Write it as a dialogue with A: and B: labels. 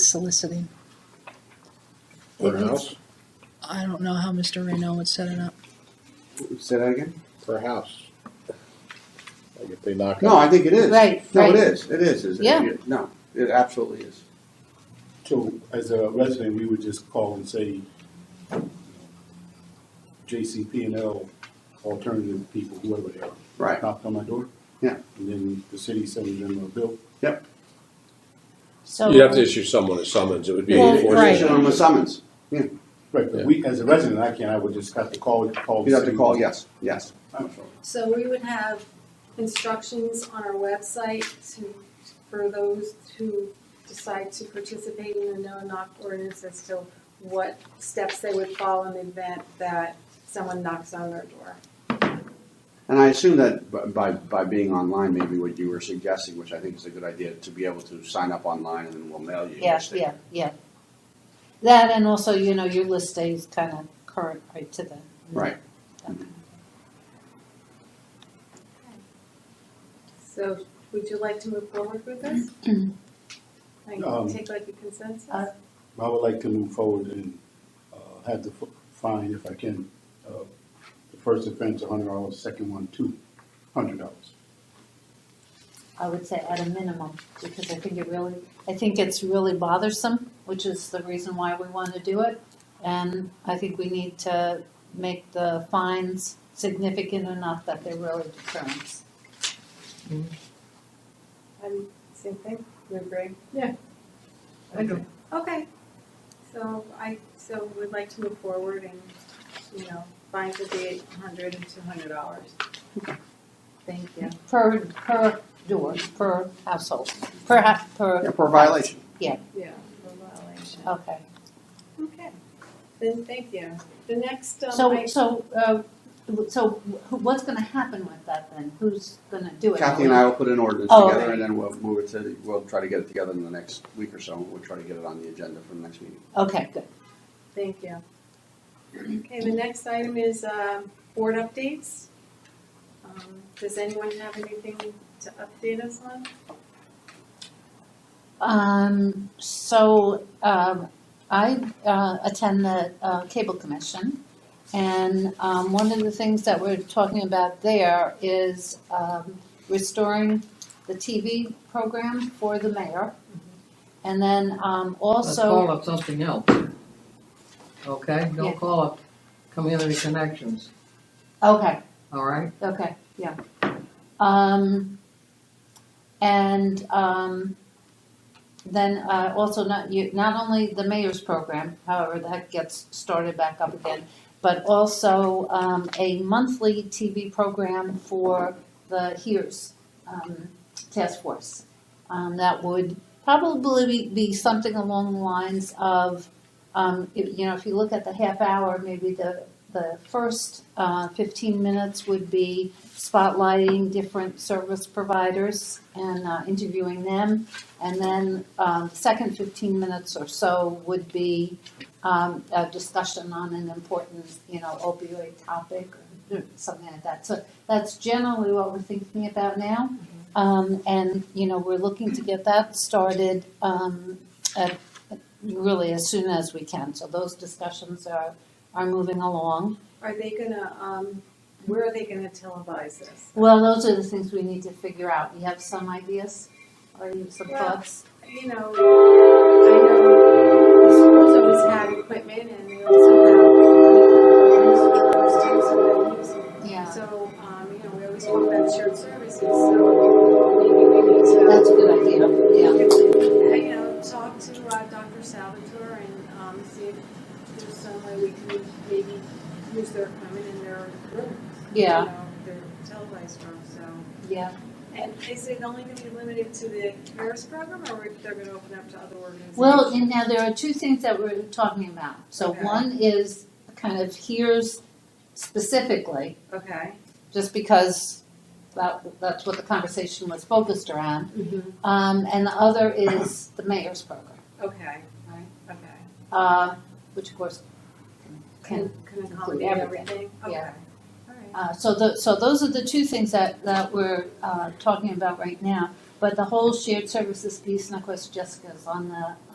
A: soliciting.
B: Per house?
A: I don't know how Mr. Reno would set it up.
C: Say that again?
B: Per house. Like if they knock
C: No,
B: out,
C: I think it is.
D: Right,
C: No, it
D: right.
C: is, it is, is it?
D: Yeah.
C: No, it absolutely is.
E: So as a resident, we would just call and say, you know, JCP and L alternative people, whoever they are.
C: Right.
E: Knocked on my door.
C: Yeah.
E: And then the city sends them a bill.
C: Yep.
D: So.
F: You'd have to issue someone a summons, it would be.
D: Well,
F: enforced.
A: right.
C: Issue them a summons. Yeah,
E: Right, but we, as a resident, I can, not I would just have to call, call. the
C: you have to
E: city.
C: call, yes, yes.
E: I'm sorry.
G: So we would have instructions on our website to, for those who decide to participate in the no-knock ordinance as to what steps they would follow in the event that someone knocks on their door.
C: And I assume that b- by, by being online, maybe what you were suggesting, which I think is a good idea, to be able to sign up online and then we'll mail you. your
D: Yeah,
C: sticker.
D: yeah, yeah. That and also, you know, your list stays kind of current right to the.
C: Right.
D: Okay.
G: So would you like to move forward with this?
E: Um,
G: Like, take like a consensus?
D: Uh,
E: I would like to move forward and uh, have the f- fine, if I can, uh, the first offense, a hundred dollars, second one, two hundred dollars.
D: I would say at a minimum, because I think it really, I think it's really bothersome, which is the reason why we want to do it. And I think we need to make the fines significant enough that they're really deterrents.
G: I'm, same thing, you agree?
A: Yeah. I do.
G: Okay, so I, so would like to move forward and, you know, fines would be eight hundred and two hundred dollars.
D: Thank you. Per, per door, per household, per, ha- per.
C: Yeah, for violation.
G: Yeah. For violation.
D: Okay.
G: Okay, then thank you. The next, um,
D: So,
G: I,
D: so, uh, so wh- what's gonna happen with that then? Who's gonna do it?
C: Kathy and I will put an ordinance
D: Oh,
C: together
D: okay.
C: and then we'll move it to, we'll try to get it together in the next week or so. We'll try to get it on the agenda for the next meeting.
D: Okay, good.
G: thank you. Okay, the next item is, um, board updates. Um, does anyone have anything to update us on?
D: Um, so, um, I, uh, attend the, uh, cable commission. And, um, one of the things that we're talking about there is, um, restoring the TV program for the mayor. And then, um,
H: Mm-hmm. Let's
D: also.
H: call up something else. Okay,
D: Yeah.
H: don't call up community connections,
D: Okay,
H: all right?
D: Okay, yeah. Um, and, um, then, uh, also not, you, not only the mayor's program, however, that gets started back up again, but also, um, a monthly TV program for the HERS, um, task force. Um, that would probably be, be something along the lines of, um, if- you know, if you look at the half hour, maybe the the first uh, 15 minutes would be spotlighting different service providers and uh, interviewing them. And then um, second 15 minutes or so would be um, a discussion on an important, you know, opioid topic or something like that. So that's generally what we're thinking about now. Um, And, you know, we're looking to get that started um, at- really as soon as we can. So those discussions are, are moving along.
G: Are they gonna, um, where are they gonna televise this?
D: Well, those are the things we need to figure out. You have some ideas or you have some
G: Well-
D: thoughts?
G: you know, I know the schools always had equipment and they also have.
D: Yeah,
G: So, um, you know, we always talk about shared services, so maybe we need to. uh,
D: that's a good idea, yeah.
G: You know, talk to uh, Dr. Salvatore and um, see if there's some way we can maybe use their equipment in their rooms. you
D: Yeah.
G: know, Their televised rooms, so.
D: Yeah,
G: And is it only gonna be limited to the Harris program, or they're gonna open up to other organizations?
D: well, and now there are two things that we're talking about. So
G: Okay.
D: one is kind of here's specifically,
G: Okay.
D: just because that, that's what the conversation was focused around.
G: Mm-hmm.
D: Um, and the other is the mayor's program,
G: Okay, right, okay.
D: uh, which of course can
G: Can, can accommodate
D: everything.
G: everything?
D: Yeah.
G: Okay, all right.
D: Uh, so the, so those are the two things that, that we're, uh, talking about right now. But the whole shared services piece, and of course Jessica's on the,